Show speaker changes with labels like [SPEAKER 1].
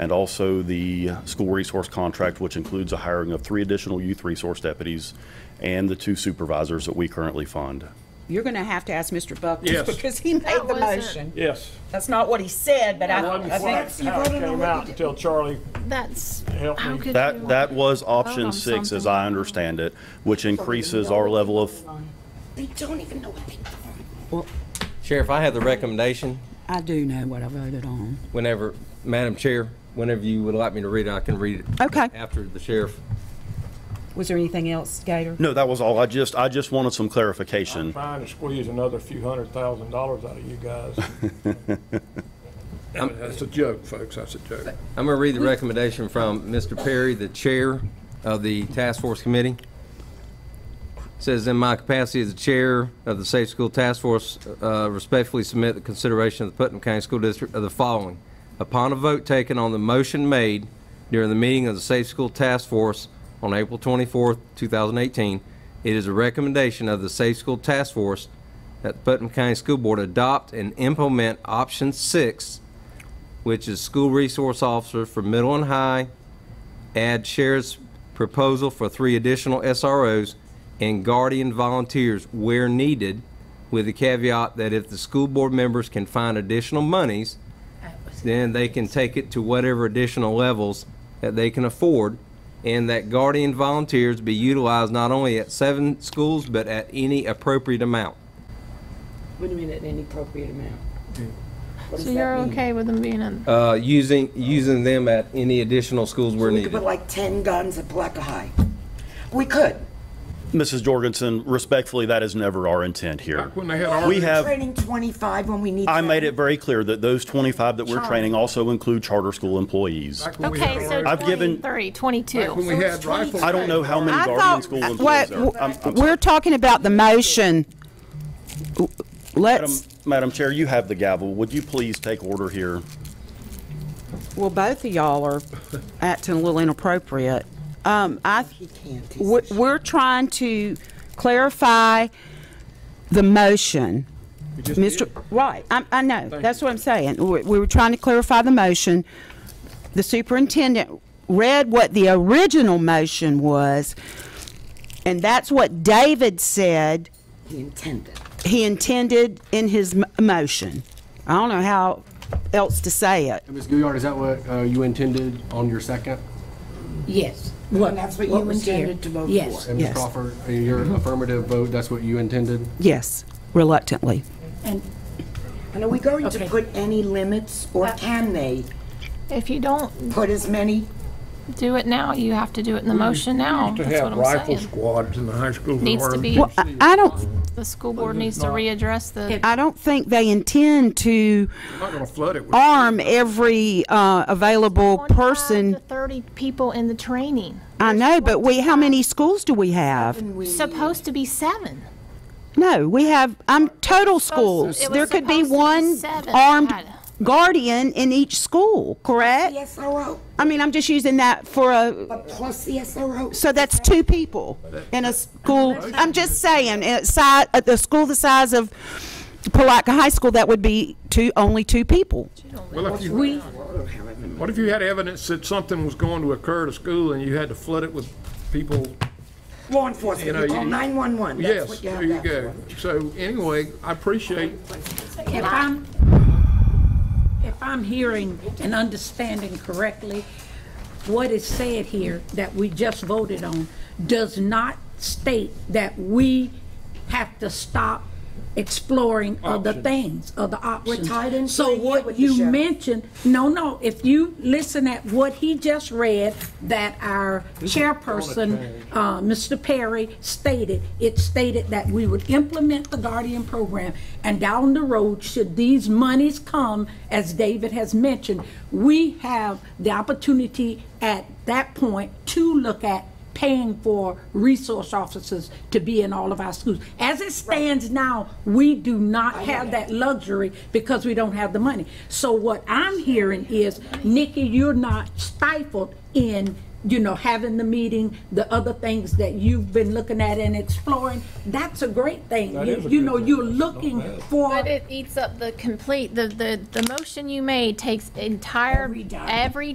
[SPEAKER 1] and also the school resource contract, which includes a hiring of three additional youth resource deputies and the two supervisors that we currently fund.
[SPEAKER 2] You're going to have to ask Mr.
[SPEAKER 3] Yes.
[SPEAKER 2] Buckles because he made the
[SPEAKER 4] wasn't-
[SPEAKER 2] motion.
[SPEAKER 3] Yes.
[SPEAKER 2] That's not what he said, but
[SPEAKER 4] Oh,
[SPEAKER 2] I
[SPEAKER 3] Wasn't
[SPEAKER 2] I
[SPEAKER 3] quite
[SPEAKER 2] think.
[SPEAKER 3] how it came out until Charlie
[SPEAKER 4] That's,
[SPEAKER 3] Help
[SPEAKER 4] how
[SPEAKER 3] me.
[SPEAKER 4] could you?
[SPEAKER 1] That, that was
[SPEAKER 4] on
[SPEAKER 1] option six, as
[SPEAKER 4] something.
[SPEAKER 1] I understand it, which increases our level of,
[SPEAKER 2] They don't even know what they.
[SPEAKER 5] Sheriff, I have the recommendation,
[SPEAKER 2] I do know what I voted on.
[SPEAKER 5] whenever, Madam Chair, whenever you would like me to read it, I can read it.
[SPEAKER 2] Okay.
[SPEAKER 5] After the sheriff.
[SPEAKER 2] Was there anything else, Gator?
[SPEAKER 1] no, that was all. I just, I just wanted some clarification.
[SPEAKER 3] trying to squeeze another few hundred thousand dollars out of you guys. That's a joke, folks, that's a joke.
[SPEAKER 5] I'm going to read the recommendation from Mr. Perry, the chair of the task force committee. Says, "In my capacity as the chair of the Safe School Task Force, uh, respectfully submit the consideration of the Putnam County School District of the following. Upon a vote taken on the motion made during the meeting of the Safe School Task Force on April 24th, 2018, it is a recommendation of the Safe School Task Force that the Putnam County School Board adopt and implement option six which is school resource officer for middle and high, add sheriff's proposal for three additional SROs, and guardian volunteers where needed, with the caveat that if the school board members can find additional monies, then they can take it to whatever additional levels that they can afford, and that guardian volunteers be utilized not only at seven schools, but at any appropriate amount.
[SPEAKER 2] What do you mean at any appropriate amount? What does that
[SPEAKER 4] So you're
[SPEAKER 2] mean?
[SPEAKER 4] okay with them being in?
[SPEAKER 5] Uh, using, using them at any additional schools where
[SPEAKER 6] We could
[SPEAKER 5] needed.
[SPEAKER 6] put like 10 guns at Black High. We could.
[SPEAKER 1] Mrs. Jorgensen, respectfully, that is never our intent here.
[SPEAKER 3] Back when they had our-
[SPEAKER 1] We have,
[SPEAKER 6] Training 25 when we need.
[SPEAKER 1] I made
[SPEAKER 6] 70.
[SPEAKER 1] it very clear that those 25 that we're training also include charter school employees.
[SPEAKER 4] Okay, so
[SPEAKER 1] I've given-
[SPEAKER 4] 23, 22.
[SPEAKER 3] we had rifles.
[SPEAKER 1] I don't know how many
[SPEAKER 2] I
[SPEAKER 1] Guardian
[SPEAKER 2] thought,
[SPEAKER 1] School employees
[SPEAKER 2] what,
[SPEAKER 1] there are. I'm- I'm
[SPEAKER 2] we're talking about the motion.
[SPEAKER 1] Madam-
[SPEAKER 2] Let's,
[SPEAKER 1] Madam Chair, you have the gavel. Would you please take order here?
[SPEAKER 2] well, both of y'all are acting a little inappropriate. Um, I,
[SPEAKER 6] can't.
[SPEAKER 2] we're we're trying to clarify the motion. Mr., right, I, I know, that's what I'm saying. We we were trying to clarify the motion. The superintendent read what the original motion was, and that's what David said
[SPEAKER 6] He intended.
[SPEAKER 2] he intended in his m- motion. I don't know how else to say it.
[SPEAKER 7] Ms. Gouillard, is that what uh, you intended on your second?
[SPEAKER 8] Yes.
[SPEAKER 6] And that's what you intended to vote for.
[SPEAKER 8] Yes,
[SPEAKER 7] And
[SPEAKER 2] Yes.
[SPEAKER 7] Ms. Crawford, uh, your affirmative vote, that's what you intended?
[SPEAKER 2] Yes, reluctantly.
[SPEAKER 8] and
[SPEAKER 6] And are we going to
[SPEAKER 8] Okay.
[SPEAKER 6] put any limits, or can they
[SPEAKER 4] If you don't
[SPEAKER 6] put as many?
[SPEAKER 4] do it now, you have to do it in the motion now.
[SPEAKER 3] To
[SPEAKER 4] That's what
[SPEAKER 3] have
[SPEAKER 4] I'm
[SPEAKER 3] rifle
[SPEAKER 4] saying.
[SPEAKER 3] squads in the high school. that
[SPEAKER 4] Needs to
[SPEAKER 3] were-
[SPEAKER 4] be-
[SPEAKER 2] Well, I, I don't,
[SPEAKER 4] The school board needs to readdress the,
[SPEAKER 2] I don't think they intend to
[SPEAKER 3] We're Not gonna flood it with.
[SPEAKER 2] arm every uh, available
[SPEAKER 4] 25 to
[SPEAKER 2] person.
[SPEAKER 4] 30 people in the training.
[SPEAKER 2] I know, but we, how many schools do we have?
[SPEAKER 4] Supposed to be seven.
[SPEAKER 2] No, we have, I'm total schools.
[SPEAKER 4] it was
[SPEAKER 2] There could be
[SPEAKER 4] supposed to be
[SPEAKER 2] one
[SPEAKER 4] seven.
[SPEAKER 2] armed
[SPEAKER 4] I-
[SPEAKER 2] guardian in each school, correct?
[SPEAKER 6] The SRO,
[SPEAKER 2] I mean, I'm just using that for a,
[SPEAKER 6] but plus the SRO.
[SPEAKER 2] So that's two people in a school, I'm just saying, at si- at the school the size of Palatka High School, that would be two, only two people.
[SPEAKER 3] Well, if you- What if you had evidence that something was going to occur to school and you had to flood it with people?
[SPEAKER 6] Law
[SPEAKER 3] You
[SPEAKER 6] enforcement,
[SPEAKER 3] know,
[SPEAKER 6] you call
[SPEAKER 3] you-
[SPEAKER 6] 911. That's
[SPEAKER 3] Yes,
[SPEAKER 6] what you
[SPEAKER 3] there
[SPEAKER 6] have
[SPEAKER 3] you
[SPEAKER 6] that
[SPEAKER 3] go. So anyway, I appreciate
[SPEAKER 8] if I'm, if I'm hearing and understanding correctly, what is said here that we just voted on does not state that we have to stop exploring other things, other options.
[SPEAKER 6] tied into a
[SPEAKER 8] So
[SPEAKER 6] year
[SPEAKER 8] what
[SPEAKER 6] with the
[SPEAKER 8] you
[SPEAKER 6] sheriff.
[SPEAKER 8] mentioned, no, no, if you listen at what he just read, that our chairperson, uh, Mr. Perry stated, it stated that we would implement the Guardian program, and down the road, should these monies come, as David has mentioned, we have the opportunity at that point to look at paying for resource officers to be in all of our schools. As it stands now, we do not have that luxury because we don't have the money. So what I'm hearing is, Nikki, you're not stifled in, you know, having the meeting, the other things that you've been looking at and exploring. That's a great thing.
[SPEAKER 3] That
[SPEAKER 8] You-
[SPEAKER 3] is a
[SPEAKER 8] You
[SPEAKER 3] good
[SPEAKER 8] know,
[SPEAKER 3] thing.
[SPEAKER 8] you're
[SPEAKER 3] That's not
[SPEAKER 8] looking
[SPEAKER 3] bad.
[SPEAKER 8] for.
[SPEAKER 4] But it eats up the complete, the, the, the motion you made takes entire,
[SPEAKER 8] Every dime.
[SPEAKER 4] every